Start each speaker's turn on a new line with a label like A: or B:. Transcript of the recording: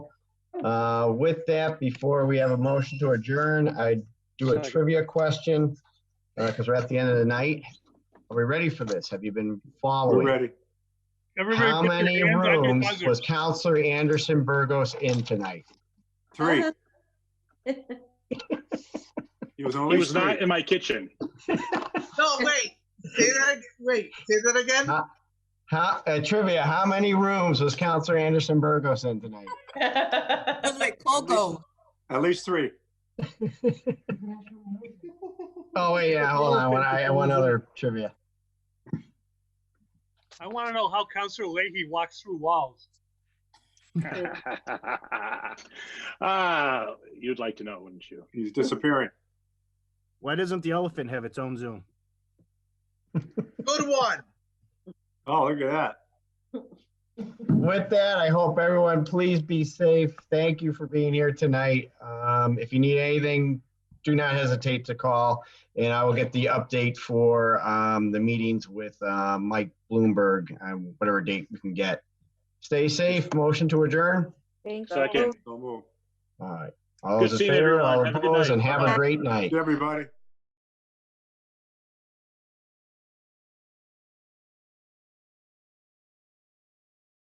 A: Uh, With that, before we have a motion to adjourn, I do a
B: Second.
A: trivia question, because we're at the end of the night. Are we ready for this? Have you been
C: We're
A: following?
C: ready.
D: Everybody
A: How
D: put their
A: many
D: hands on your
A: rooms
D: buzzer.
A: was Counselor Anderson Burgos in tonight?
C: Three. He was
B: He
C: only
B: was not
C: three.
B: in my kitchen.
E: No, wait, say that, ag- wait, say that again?
A: Huh? How, uh, trivia, how many rooms was Counselor Anderson Burgos in tonight?
F: That's
E: That's like Coco.
C: At least three.
A: Oh, wait, yeah, hold on, one, I, one other trivia.
D: I want to know how Counselor Leahy walks through walls.
B: Ah, you'd like to know, wouldn't you?
C: He's disappearing.
G: Why doesn't the elephant have its own Zoom?
E: Good one.
C: Oh, look at that.
A: With that, I hope everyone, please be safe. Thank you for being here tonight. Um, if you need anything, do not hesitate to call, and I will get the update for um, the meetings with uh, Mike Bloomberg, um, whatever date we can get. Stay safe. Motion to adjourn.
H: Thank you.
B: Second.
C: Don't move.
A: All right. All
B: Good
A: those in
B: seeing
A: favor,
B: everyone.
A: all
B: Have a good
A: opposed,
B: night.
A: and have a great night.
C: Everybody.